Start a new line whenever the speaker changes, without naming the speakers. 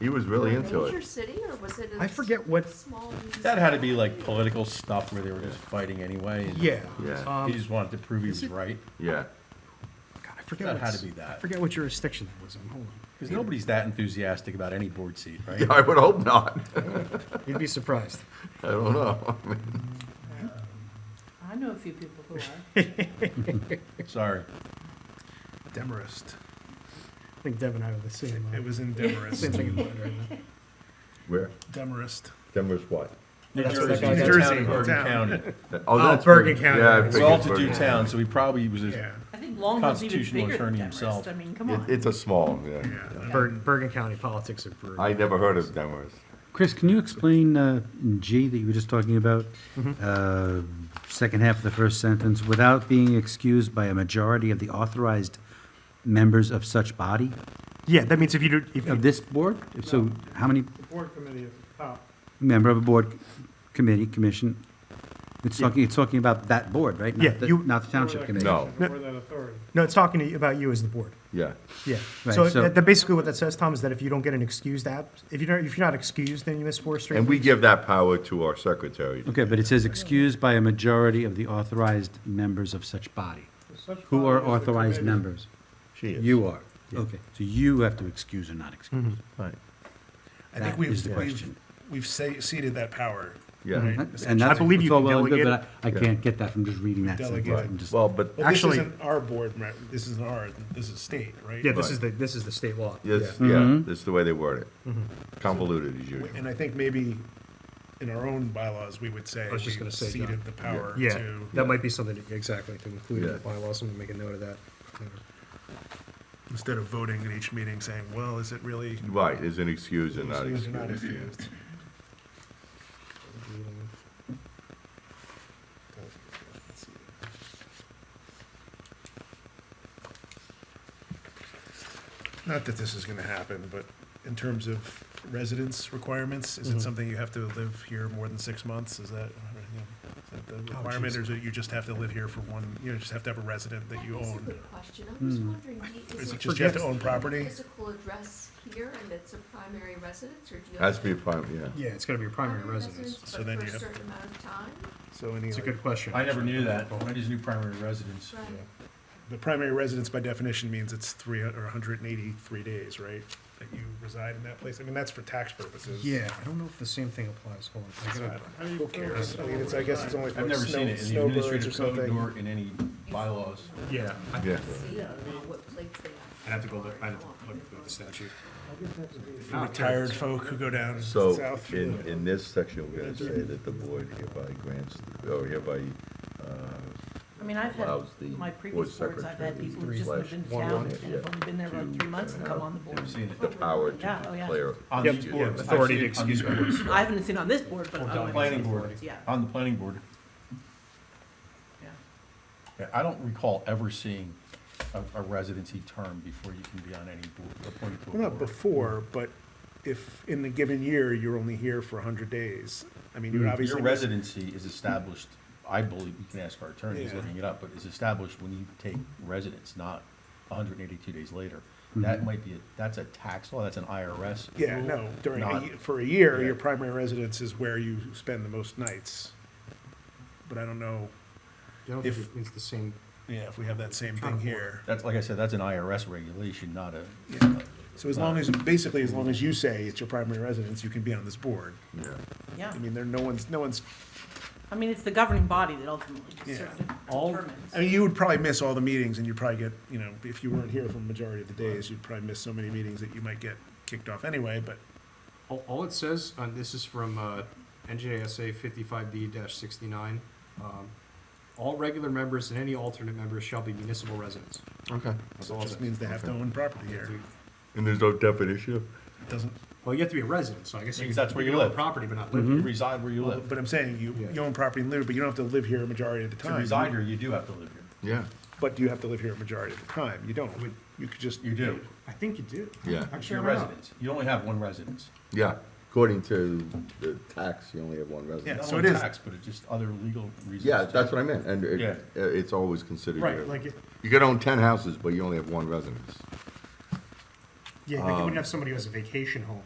He was really into
Major
it.
city or was it? a
I forget what-
Small.
That had to be like political stuff where they were just fighting anyway. and
Yeah. um,
Yeah.
He just wanted to prove he was right.
Yeah.
God, I forget
That
what
had to be that.
I forget what jurisdiction that was in. Hold on,
Because nobody's that enthusiastic about any board seat, right?
Yeah, I would hope not.
you'd be surprised.
I don't know. I mean,
I know a few people who are.
Sorry.
Demarest.
I think Deb and I were the same. uh,
It was in
same
Demarest.
thing. in mind right now.
Where?
Demarest.
Denver's what?
New
That's what that
Jersey,
guy-
the
Jersey,
town of Bergen
town.
County.
Oh,
Bergen
Bergen-
County.
Yeah. I
It's
It's an
figured
all-to-do
Bergen
town, so he probably was just,
Yeah.
I think Longwood's even
Constitutional
bigger than
attorney
Demarest.
himself.
I mean, come
County.
on.
It- It's a small, yeah.
Bergen, Bergen County politics are brutal.
I never heard of Denver's.
Chris, can you explain uh, G that you were just talking about?
Mm-hmm.
Uh, Second half of the first sentence, without being excused by a majority of the authorized members of such body
yeah, that means if you do, if you,
of this board? So how many
Board committee is top.
member of a board, committee, commission? It's talking, it's talking about that board, right? Not
Yeah,
the-
you-
Not the township committee?
No.
No.
that authority.
no, it's talking to you about you as the board.
Yeah.
Yeah.
Right,
so
so-
that, that basically what that says, Tom, is that if you don't get an excused app, if you don't, if you're not excused, then you miss four straight.
And we give that power to our secretary.
Okay, but it says excused by a majority of the authorized members of such body. Who are authorized members?
She is.
You are. Okay, so you have to excuse or not excuse.
Right.
I think
That
we've,
is the
we've,
question.
we've se- ceded that power.
Yeah.
Mm-hmm.
And that's,
believe you
it's all
can
well and good,
delegate-
but I I can't get that from just reading that
Delegate.
sentence.
Right.
I'm just-
Well, but
But
Actually-
this isn't our board, right? This isn't our, this is state, right?
yeah, this is the this is the state law.
Yes,
Mm-hmm.
yeah, this is the way they word it. Convoluted as usual.
And I think maybe in our own bylaws, we would say
I was just
we
gonna say, John.
ceded the power
Yeah,
to.
that might be something to, exactly to include in the
Yeah.
bylaws. I'm gonna make a note of that.
Instead of voting at each meeting saying, well, is it really?
Right, is an excuse and not
excused
excuse.
or not excused? Not that this is gonna happen, but in terms of residence requirements,
Mm-hmm.
is it something you have to live here more than six months? Is that, is that
Oh,
the requirement, or is it you just have to live here for one, you just have to have a resident that you
That's a
own?
good question. I
Hmm.
was wondering, do you-
Is
is
it
it
just you have to
Forget-
own property?
physical address here and it's a primary residence or do you?
Has
have
to be a prime, yeah.
Yeah, it's gotta be your
Um,
primary residence.
but
So then
for
you
a
have-
certain amount of time,
So any,
It's a
like,
good question.
I never knew that. I just knew primary residence.
right?
the primary residence by definition means it's three, hun- or hundred and eighty-three days, right? That you reside in that place. I mean, that's for tax purposes.
Yeah, I don't know if the same thing applies. Hold on. I
So,
gotta-
I mean, Who cares? I mean, it's, I guess it's only for
I've
like
never seen
snow,
it in the
snowbirds or
administrative code
something.
nor in any bylaws.
Yeah. I-
Yeah.
See uh, what plates they have.
I'd have to go look, I'd have to look through the statute.
For Retired folk who go down
So
south.
in, in this section, we're gonna say that the board hereby grants, or hereby, uh,
I mean, I've had,
allows the
my
board
previous boards, I've
secretary
had people who
three
just
slash
lived in
one
town
one,
and
yeah,
have only been there about
to
three months and
have
come on the board.
Never seen it.
the power to
Yeah, oh, yeah.
declare.
On
Yep.
these boards. I've
Authority
seen
to
it on these
excuse
boards.
I haven't seen it on this board, but.
On the
other
planning
ones.
board.
Yeah.
On the planning board.
Yeah.
Yeah, I don't recall ever seeing a, a residency term before you can be on any board, appointed to a
Well, not
board.
before, but if in the given year, you're only here for hundred days, I mean, you're obviously.
Mm, Your residency is established, I believe, you can ask our attorney, he's
Yeah.
looking it up, but is established when you take residence, not hundred and eighty-two days later. That might be, a that's a tax law, that's an IRS.
Mm-hmm. Yeah,
rule,
no, during, a
not-
ye- for a year,
yeah.
your primary residence is where you spend the most nights. But I don't know,
I don't
If-
think it means the same.
yeah, if we have that same
Kind
thing
of
here.
That's, like I said, that's an IRS regulation, not a,
So as long as, basically, as long as you say it's your primary residence, you can be on this board.
Yeah,
Yeah,
I mean, there, no one's, no one's,
I mean, it's the governing body that ultimately
Yeah.
sort of
all,
determines.
I mean, you would probably miss all the meetings and you'd probably get, you know, if you weren't here for the majority of the days, you'd probably miss so many meetings that you might get kicked off anyway, but
All, all it says, and this is from uh, NJSA 55D-69, um, all regular members and any alternate members shall be municipal residents.
okay.
That's
it
all it
just
says.
means they have to own property here.
And there's no definition of?
It doesn't,
Well, you have to be a resident, so I guess you
Because that's where
you
you
own
live.
property, but not live
you
here.
reside where you live.
Mm-hmm. but I'm saying, you,
Yeah.
you own property in lieu, but you don't have to live here a majority of the
To
time.
reside here, you do have to live here.
Yeah,
But do you have to live here a majority of the time? You don't. You could just.
You do.
I think you do.
Yeah.
It's
Actually,
your
I don't know.
residence. You only have one residence.
yeah, according to the tax, you only have one resident.
Yeah,
Not
so
only
it is-
tax, But it's just other legal reasons.
Yeah,
too.
that's what I meant, and it,
Yeah.
uh, it's always considered.
Right,
your-
like it-
You could own ten houses, but you only have one residence. Um,
Yeah, like you wouldn't have somebody who has a vacation home